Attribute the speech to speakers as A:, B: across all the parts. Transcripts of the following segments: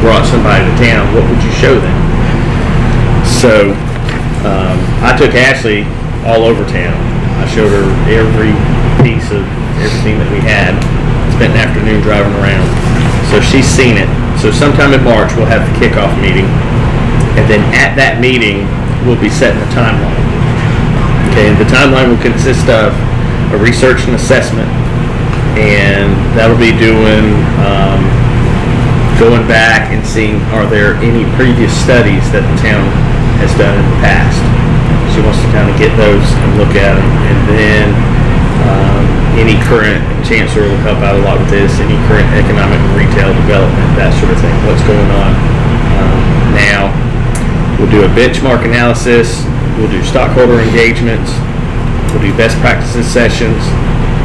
A: brought somebody to town, what would you show them? So um, I took Ashley all over town. I showed her every piece of everything that we had. Spent an afternoon driving around. So she's seen it. So sometime in March we'll have the kickoff meeting, and then at that meeting we'll be setting a timeline. Okay, the timeline will consist of a research and assessment, and that'll be doing um, going back and seeing are there any previous studies that the town has done in the past. She wants to kind of get those and look at them, and then um, any current chancellor will help out a lot with this. Any current economic and retail development, that sort of thing. What's going on um, now? We'll do a benchmark analysis. We'll do stockholder engagements. We'll do best practices sessions,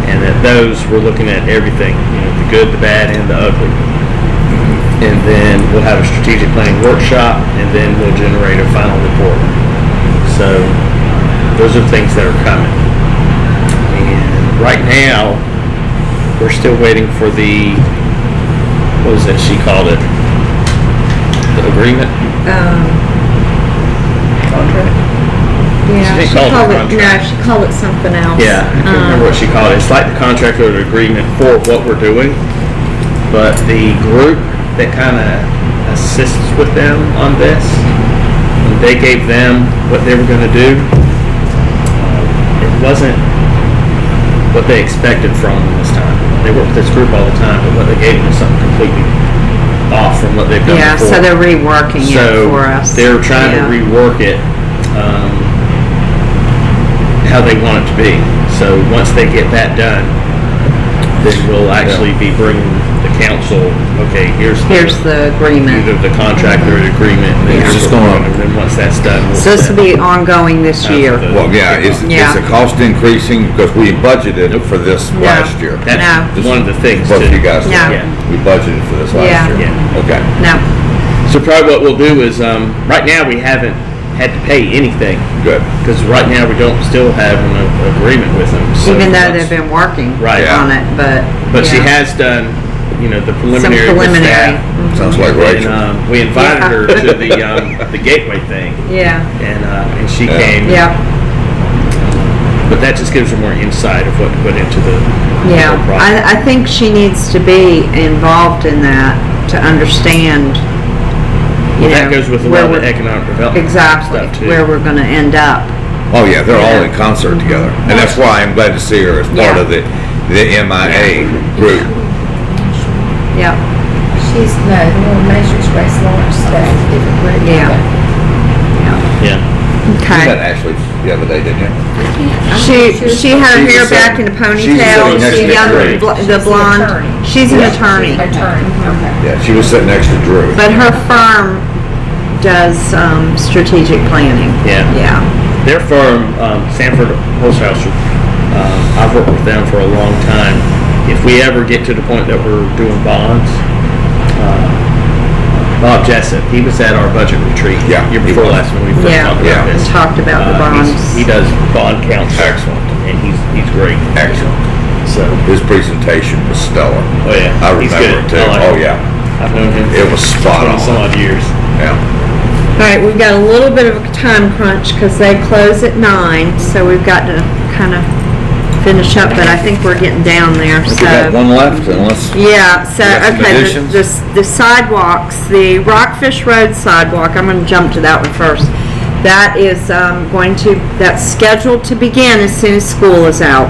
A: and at those we're looking at everything, you know, the good, the bad, and the ugly and then we'll have a strategic planning workshop, and then we'll generate a final report. So those are things that are coming. And right now, we're still waiting for the, what was it she called it? The agreement?
B: um,
A: Contract?
B: yeah,
A: She
B: she
A: called it
B: called it, no,
A: contract.
B: she called it something else.
A: Yeah, I can't remember
C: Um,
A: what she called it. It's like the contract or the agreement for what we're doing. But the group that kind of assists with them on this, they gave them what they were going to do. uh, It wasn't what they expected from them this time. They work with this group all the time, but what they gave them was something completely off from what they've done
C: Yeah,
A: before.
C: so they're reworking it
A: So
C: for us.
A: they're trying to
C: Yeah.
A: rework it um, how they want it to be. So once they get that done, then we'll actually be bringing the council. Okay, here's
C: Here's the agreement.
A: either the contract or the agreement. And then
D: It's
A: here's
D: just
A: what we're
D: gonna-
A: doing. And then once that's done, we'll
C: So this will be ongoing this
A: set
C: year.
A: up the-
D: Well, yeah, is, is the
C: Yeah.
D: cost increasing because we budgeted for this
C: No.
D: last year?
A: That's
D: Just
A: one of the things.
D: Both
A: to-
D: of you guys,
C: No.
A: Yeah.
D: we budgeted for this
C: Yeah.
D: last year?
A: Yeah.
D: Okay.
C: No,
A: So probably what we'll do is, um, right now we haven't had to pay anything
D: Good.
A: because right now we don't still have an a- agreement with them. So
C: even though
A: once-
C: they've been working
A: Right.
C: on it, but.
A: But she
C: yeah.
A: has done, you know, the
C: Some
A: preliminary. with
C: preliminary. Mm-hmm.
A: staff.
D: Sounds like
A: And
D: Rachel.
A: um, we invited
C: Yeah.
A: her to the um, the gateway thing,
C: Yeah,
A: and uh, and she
D: Yeah.
A: came.
C: yeah,
A: But that just gives her more insight of what went into the the
C: yeah.
A: whole project.
C: I, I think she needs to be involved in that to understand, you
A: well, that
C: know,
A: goes with a
C: where
A: lot of the
C: we're-
A: economic development
C: Exactly,
A: stuff too.
C: where we're gonna end up.
D: Oh, yeah, they're all in
C: Yeah.
D: concert together. And that's why I'm glad to see her as part
C: Mm-hmm. Yeah.
D: of the, the MIA group.
C: Yep,
B: She's, no, the little measures race launch stuff, different group.
C: Yeah. yeah,
A: yeah,
D: You
C: okay.
D: met Ashley the other day, didn't you?
C: She, she had her
D: She's
C: hair
D: a-
C: back in a
D: she's a
C: ponytail,
D: next
C: the
D: to Drake.
C: young, bl- the
B: She's an attorney.
C: blonde, she's an
D: Yeah.
C: attorney.
B: Attorney,
C: Mm-hmm.
B: okay.
D: Yeah, she was sitting next to Drew.
C: But her firm does um, strategic planning.
A: yeah.
C: Yeah.
A: Their firm, um, Sanford Holzhauser, um, I've worked with them for a long time. If we ever get to the point that we're doing bonds, uh, Bob Jessup, he was at our budget retreat
D: Yeah,
A: year
D: he
A: before
D: was.
A: last when we first
C: Yeah.
A: talked about
D: Yeah.
A: this.
C: We talked about the
A: Uh, he's-
C: bonds.
A: He does bond counsel.
D: Excellent.
A: And he's, he's great.
D: Excellent.
A: So,
D: His presentation was stellar.
A: oh yeah.
D: I
A: he's good.
D: remember it too.
A: I like
D: Oh,
A: him.
D: yeah.
A: I've known him.
D: It was spot
A: for Some
D: on.
A: odd years.
D: Yeah.
C: All right, we've got a little bit of a time crunch because they close at nine, so we've got to kind of finish up, but I think we're getting down there,
D: We
C: so.
D: got one left unless,
C: Yeah, so,
D: We got some
C: okay, the-
D: additions?
C: the s- the sidewalks, the Rockfish Road sidewalk, I'm going to jump to that one first. That is um, going to, that's scheduled to begin as soon as school is out.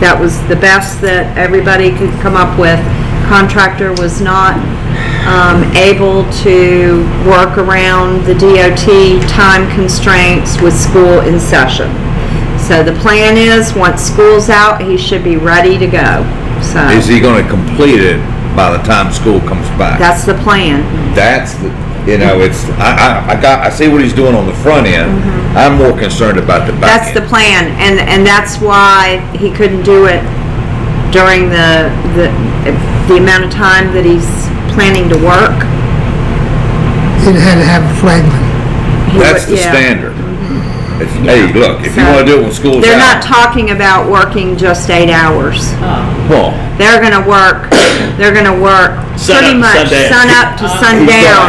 C: That was the best that everybody could come up with. Contractor was not um, able to work around the DOT time constraints with school in session. So the plan is, once school's out, he should be ready to go. So
D: is he gonna complete it by the time school comes back?
C: that's the
A: Mm-hmm.
C: plan.
D: that's the, you know, it's, I, I, I got, I see what he's doing on the front end. I'm more concerned about the
C: Mm-hmm. That's
D: back
C: the
D: end.
C: plan, and, and that's why he couldn't do it during the, the, the amount of time that he's planning to work.
E: It had to have a flagman.
C: He
D: That's
C: would-
D: the
C: yeah. Mm-hmm.
D: standard. If, hey, look, if you
C: So-
D: wanna do it when school's out.
C: They're not talking about working just eight hours.
D: Well,
C: They're gonna work, they're gonna work
A: Sun
C: pretty
A: up to
C: much
A: sundown.
C: sun up to sundown